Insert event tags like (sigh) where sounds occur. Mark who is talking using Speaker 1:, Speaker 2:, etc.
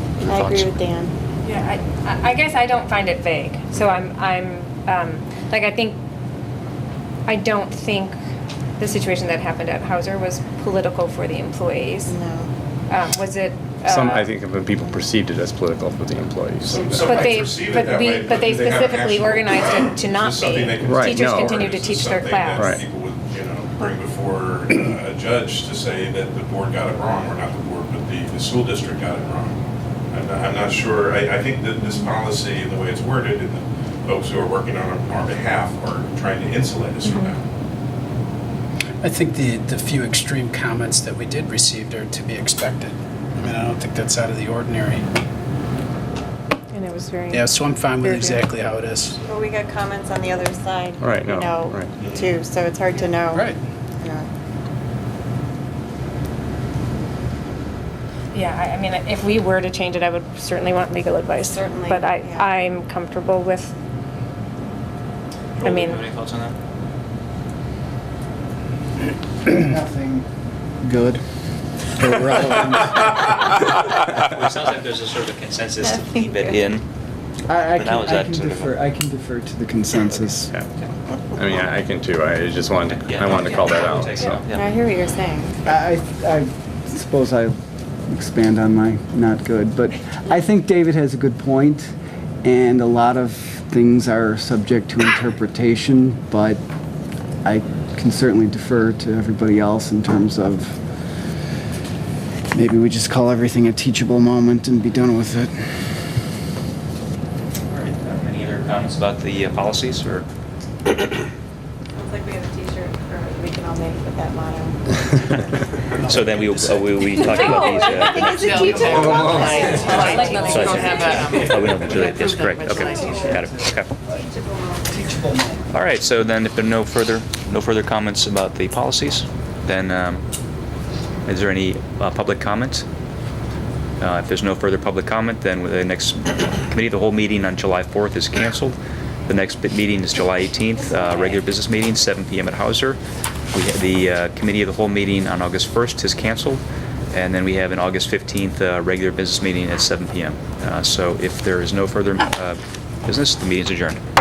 Speaker 1: I agree
Speaker 2: thoughts?
Speaker 1: with Dan.
Speaker 3: Yeah, I, I guess I don't find it vague. So I'm, I'm, um, like, I think, I don't think the situation that happened at Hauser was political for the employees.
Speaker 1: No.
Speaker 3: Um, was it?
Speaker 2: Some,
Speaker 3: uh,
Speaker 2: I think, of the people perceived it as political for the
Speaker 4: (laughs)
Speaker 2: employees.
Speaker 5: Some- some
Speaker 3: But
Speaker 5: might
Speaker 3: they,
Speaker 5: perceive it
Speaker 3: but
Speaker 5: that
Speaker 3: we,
Speaker 5: way,
Speaker 3: but they
Speaker 5: they haven't
Speaker 3: specifically
Speaker 5: actually-
Speaker 3: organized it to
Speaker 5: This is
Speaker 3: not be.
Speaker 5: something they can
Speaker 2: Right,
Speaker 3: Teachers
Speaker 2: no.
Speaker 3: continue to
Speaker 5: This is
Speaker 3: teach their
Speaker 5: something
Speaker 3: class.
Speaker 2: Right.
Speaker 5: that People would, you know, bring before uh, a judge to say that the board got it wrong, or not the board, but the, the school district got it wrong. I'm not, I'm not sure, I, I think that this policy and the way it's worded and the folks who are working on it on our behalf are trying to insulate us from that.
Speaker 6: I think the, the few extreme comments that we did receive are to be expected. I mean, I don't think that's out of the ordinary.
Speaker 3: And it was very.
Speaker 6: Yeah, so I'm fine with
Speaker 3: Very good.
Speaker 6: exactly how it is.
Speaker 1: Well, we got comments on the other side.
Speaker 2: Right, no,
Speaker 1: You know,
Speaker 2: right.
Speaker 1: too, so it's hard to know.
Speaker 6: Right.
Speaker 1: Yeah.
Speaker 3: Yeah, I, I mean, if we were to change it, I would certainly want legal advice.
Speaker 1: Certainly,
Speaker 3: But I,
Speaker 1: yeah.
Speaker 3: I'm comfortable with, I
Speaker 4: Joel,
Speaker 3: mean-
Speaker 4: Have any thoughts on that?
Speaker 7: Nothing good or relevant.
Speaker 5: (laughs)
Speaker 4: Well, it sounds like there's a sort of a consensus
Speaker 1: I
Speaker 4: to
Speaker 1: think
Speaker 4: keep it
Speaker 1: you're-
Speaker 4: in.
Speaker 7: I,
Speaker 4: But
Speaker 7: I can,
Speaker 4: that was
Speaker 7: I
Speaker 4: that
Speaker 7: can
Speaker 4: sort of-
Speaker 7: defer, I can defer to the consensus.
Speaker 2: Yeah. I mean, I I can too. I just wanted, to- I wanted to call that out, so.
Speaker 4: Yeah.
Speaker 1: I hear what you're saying.
Speaker 7: I, I suppose I expand on my not good, but I think David has a good point, and a lot of things are subject to interpretation, but I can certainly defer to everybody else in terms of maybe we just call everything a teachable moment and be done with it.
Speaker 4: All right. Um, Any other comments about the uh,
Speaker 2: (laughs)
Speaker 4: policies or?
Speaker 1: Looks like we have a t-shirt or we can all make with that motto.
Speaker 2: (laughs)
Speaker 4: (laughs) So then we, uh, we, we talked about these.
Speaker 1: I
Speaker 4: uh,
Speaker 1: think it's a teacher.
Speaker 4: so I think- Oh, we don't have to do that, that's correct, okay, got it, okay. All right, so then if there are no further, no further comments about the policies, then um, is there any uh, public comment? Uh, If there's no further public comment, then the next committee, of the whole meeting on July 4th is canceled. The next bit- meeting is July 18th, uh, regular business meeting, 7 PM at Hauser. We ha- The uh, committee of the whole meeting on August 1st is canceled. And then we have an August 15th uh, regular business meeting at 7 PM. Uh, So if there is no further uh, business, the meeting is adjourned.